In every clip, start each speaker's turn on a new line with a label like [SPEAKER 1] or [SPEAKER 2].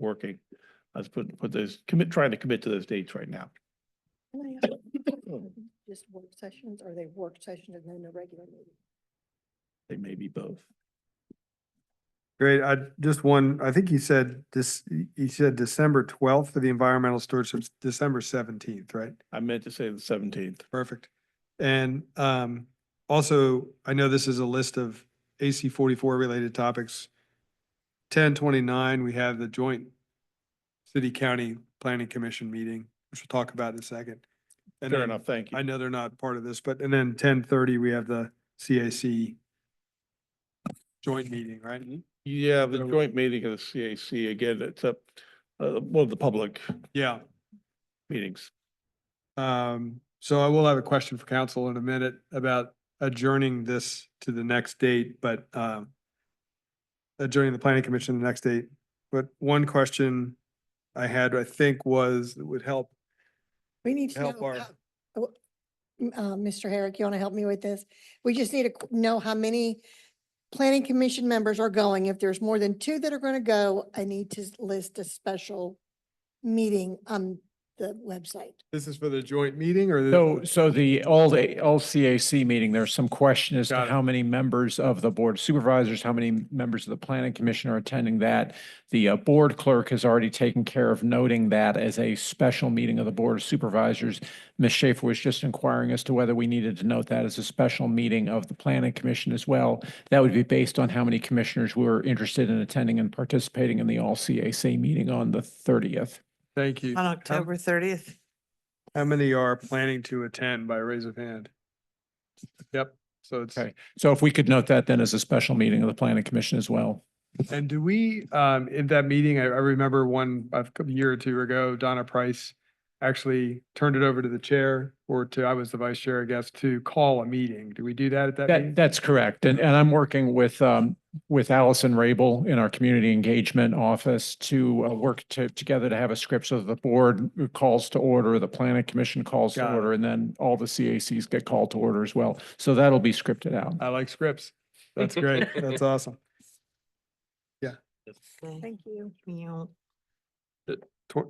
[SPEAKER 1] working. Let's put, put those, commit, trying to commit to those dates right now.
[SPEAKER 2] Can I ask, Just work sessions, are they work sessions and then a regular meeting?
[SPEAKER 1] They may be both.
[SPEAKER 3] Great. I, just one, I think you said this, he- he said December twelfth for the environmental stewardship, December seventeenth, right?
[SPEAKER 1] I meant to say the seventeenth.
[SPEAKER 3] Perfect. And um, also, I know this is a list of AC forty-four related topics. Ten twenty-nine, we have the joint city-county planning commission meeting, which we'll talk about in a second. And
[SPEAKER 1] Fair
[SPEAKER 3] then-
[SPEAKER 1] enough, thank
[SPEAKER 3] I
[SPEAKER 1] you.
[SPEAKER 3] know they're not part of this, but, and then ten thirty, we have the CAC joint meeting, right?
[SPEAKER 1] Mm-hmm. Yeah, the joint meeting of the CAC, again, it's up, uh, one of the public
[SPEAKER 3] Yeah.
[SPEAKER 1] meetings.
[SPEAKER 3] Um, so I will have a question for council in a minute about adjourning this to the next date, but, um, adjourning the planning commission to the next date. But one question I had, I think was, that would help.
[SPEAKER 2] We need to know.
[SPEAKER 3] Help our-
[SPEAKER 2] how- oh, m- Uh, Mr. Herrick, you want to help me with this? We just need to qu- know how many planning commission members are going. If there's more than two that are going to go, I need to s- list a special meeting on the website.
[SPEAKER 3] This is for the joint meeting or? the-
[SPEAKER 4] So, so the all, the all CAC meeting, there's some question as to
[SPEAKER 3] Got it.
[SPEAKER 4] how many members of the board of supervisors, how many members of the planning commission are attending that. The uh, board clerk has already taken care of noting that as a special meeting of the board of supervisors. Ms. Schaefer was just inquiring as to whether we needed to note that as a special meeting of the planning commission as well. That would be based on how many commissioners were interested in attending and participating in the all CAC meeting on the thirtieth.
[SPEAKER 3] Thank you.
[SPEAKER 5] On
[SPEAKER 3] How-
[SPEAKER 5] October thirtieth,
[SPEAKER 3] How many are planning to attend by raise of hand? Yep, so it's.
[SPEAKER 4] Okay. So if we could note that then as a special meeting of the planning commission as well.
[SPEAKER 3] And do we, um, in that meeting, I, I remember one, a cou- year or two ago, Donna Price actually turned it over to the chair or to, I was the vice chair, I guess, to call a meeting. Do we do that at that
[SPEAKER 4] That,
[SPEAKER 3] meeting?
[SPEAKER 4] that's correct. And, and I'm working with, um, with Allison Rabel in our community engagement office to uh, work to, together to have a script so that the board calls to order, the planning commission calls to
[SPEAKER 3] Got it.
[SPEAKER 4] order, and then all the CACs get called to order as well. So that'll be scripted out.
[SPEAKER 3] I like scripts. That's great. That's awesome.
[SPEAKER 2] Thank you.
[SPEAKER 5] you
[SPEAKER 3] Tw-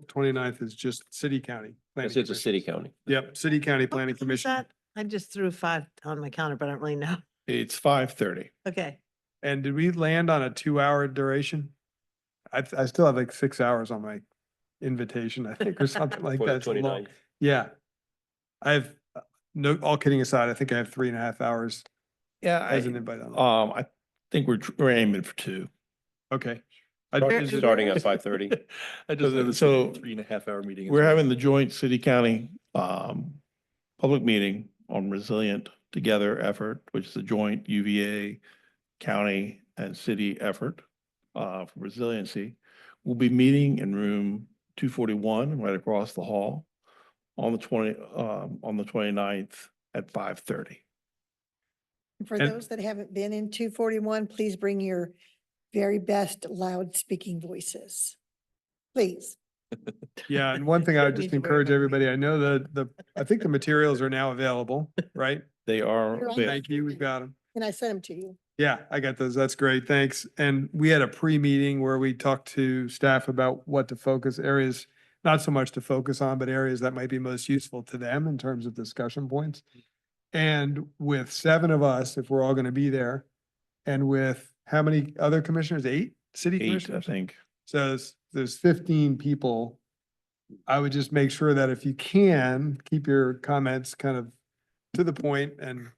[SPEAKER 3] 29th is just city county. planning
[SPEAKER 6] It's a city
[SPEAKER 3] commission.
[SPEAKER 6] county.
[SPEAKER 3] Yep, city county planning
[SPEAKER 5] What time is
[SPEAKER 3] commission.
[SPEAKER 5] that? I just threw five on my counter, but I don't really know.
[SPEAKER 1] It's five thirty.
[SPEAKER 5] Okay,
[SPEAKER 3] And did we land on a two hour duration? I, th- I still have like six hours on my invitation, I think, or something like
[SPEAKER 6] for the
[SPEAKER 3] that. It's long.
[SPEAKER 6] 29th.
[SPEAKER 3] Yeah. I have, uh, no, all kidding aside, I think I have three and a half hours
[SPEAKER 1] Yeah, I,
[SPEAKER 3] as an
[SPEAKER 1] um,
[SPEAKER 3] invite on.
[SPEAKER 1] I think we're, tr- we're aiming for two.
[SPEAKER 3] Okay. I
[SPEAKER 5] Where-
[SPEAKER 3] just-
[SPEAKER 6] Starting at five thirty.
[SPEAKER 1] So- So
[SPEAKER 7] Three and a half hour meeting.
[SPEAKER 1] we're having the joint city county, um, public meeting on resilient together effort, which is a joint UVA county and city effort, uh, for resiliency. We'll be meeting in room two forty-one, right across the hall, on the twenty, um, on the 29th at five thirty.
[SPEAKER 2] For
[SPEAKER 3] And-
[SPEAKER 2] those that haven't been in two forty-one, please bring your very best loud speaking voices. Please.
[SPEAKER 3] Yeah, and one thing I would
[SPEAKER 5] Need
[SPEAKER 3] just
[SPEAKER 5] to wear
[SPEAKER 3] encourage
[SPEAKER 5] my-
[SPEAKER 3] everybody, I know the, the, I think the materials are now available, right?
[SPEAKER 1] They are,
[SPEAKER 2] You're on
[SPEAKER 1] available.
[SPEAKER 3] Thank you, we've got them.
[SPEAKER 2] And I sent them to you.
[SPEAKER 3] Yeah, I got those. That's great. Thanks. And we had a pre-meeting where we talked to staff about what to focus areas, not so much to focus on, but areas that might be most useful to them in terms of discussion points. And with seven of us, if we're all going to be there, and with how many other commissioners? Eight city
[SPEAKER 1] eight, I
[SPEAKER 3] commissioners?
[SPEAKER 1] think.
[SPEAKER 3] So there's, there's fifteen people. I would just make sure that if you can, keep your comments kind of to the point and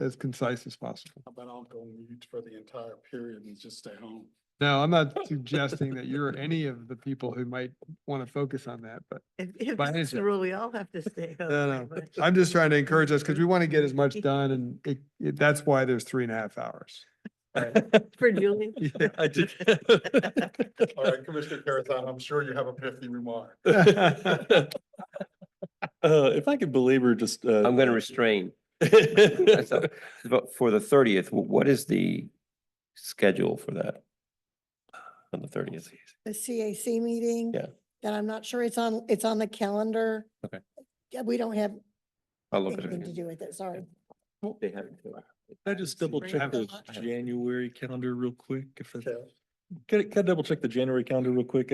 [SPEAKER 3] as concise as possible.
[SPEAKER 7] But I'll go mute for the entire period and just stay home.
[SPEAKER 3] No, I'm not suggesting that you're any of the people who might want to focus on that, but
[SPEAKER 5] if, if
[SPEAKER 3] Mine
[SPEAKER 5] it's
[SPEAKER 3] is
[SPEAKER 5] the
[SPEAKER 3] a-
[SPEAKER 5] rule, we all have to stay. home
[SPEAKER 3] no,
[SPEAKER 5] pretty
[SPEAKER 3] no.
[SPEAKER 5] much.
[SPEAKER 3] I'm just trying to encourage us because we want to get as much done and it, it- that's why there's three and a half hours.
[SPEAKER 5] For Julian.
[SPEAKER 3] Yeah,
[SPEAKER 7] I did. All right, Commissioner Carazana, I'm sure you have a pithy remark.
[SPEAKER 8] Uh, if I could belabor just, uh.
[SPEAKER 6] I'm going to restrain. So, But for the thirtieth, what is the schedule for that? On the thirtieth?
[SPEAKER 2] the CAC meeting.
[SPEAKER 6] Yeah.
[SPEAKER 2] That I'm not sure it's on, it's on the calendar.
[SPEAKER 6] Okay.
[SPEAKER 2] Yeah, we don't have
[SPEAKER 6] I'll look at
[SPEAKER 2] anything to
[SPEAKER 6] it.
[SPEAKER 2] do with it, sorry.
[SPEAKER 6] They have it too.
[SPEAKER 8] Can I just double
[SPEAKER 5] Bring
[SPEAKER 8] check
[SPEAKER 5] up
[SPEAKER 8] the
[SPEAKER 5] the-
[SPEAKER 8] January calendar real quick? If that's, can I, can I double check the January calendar real quick?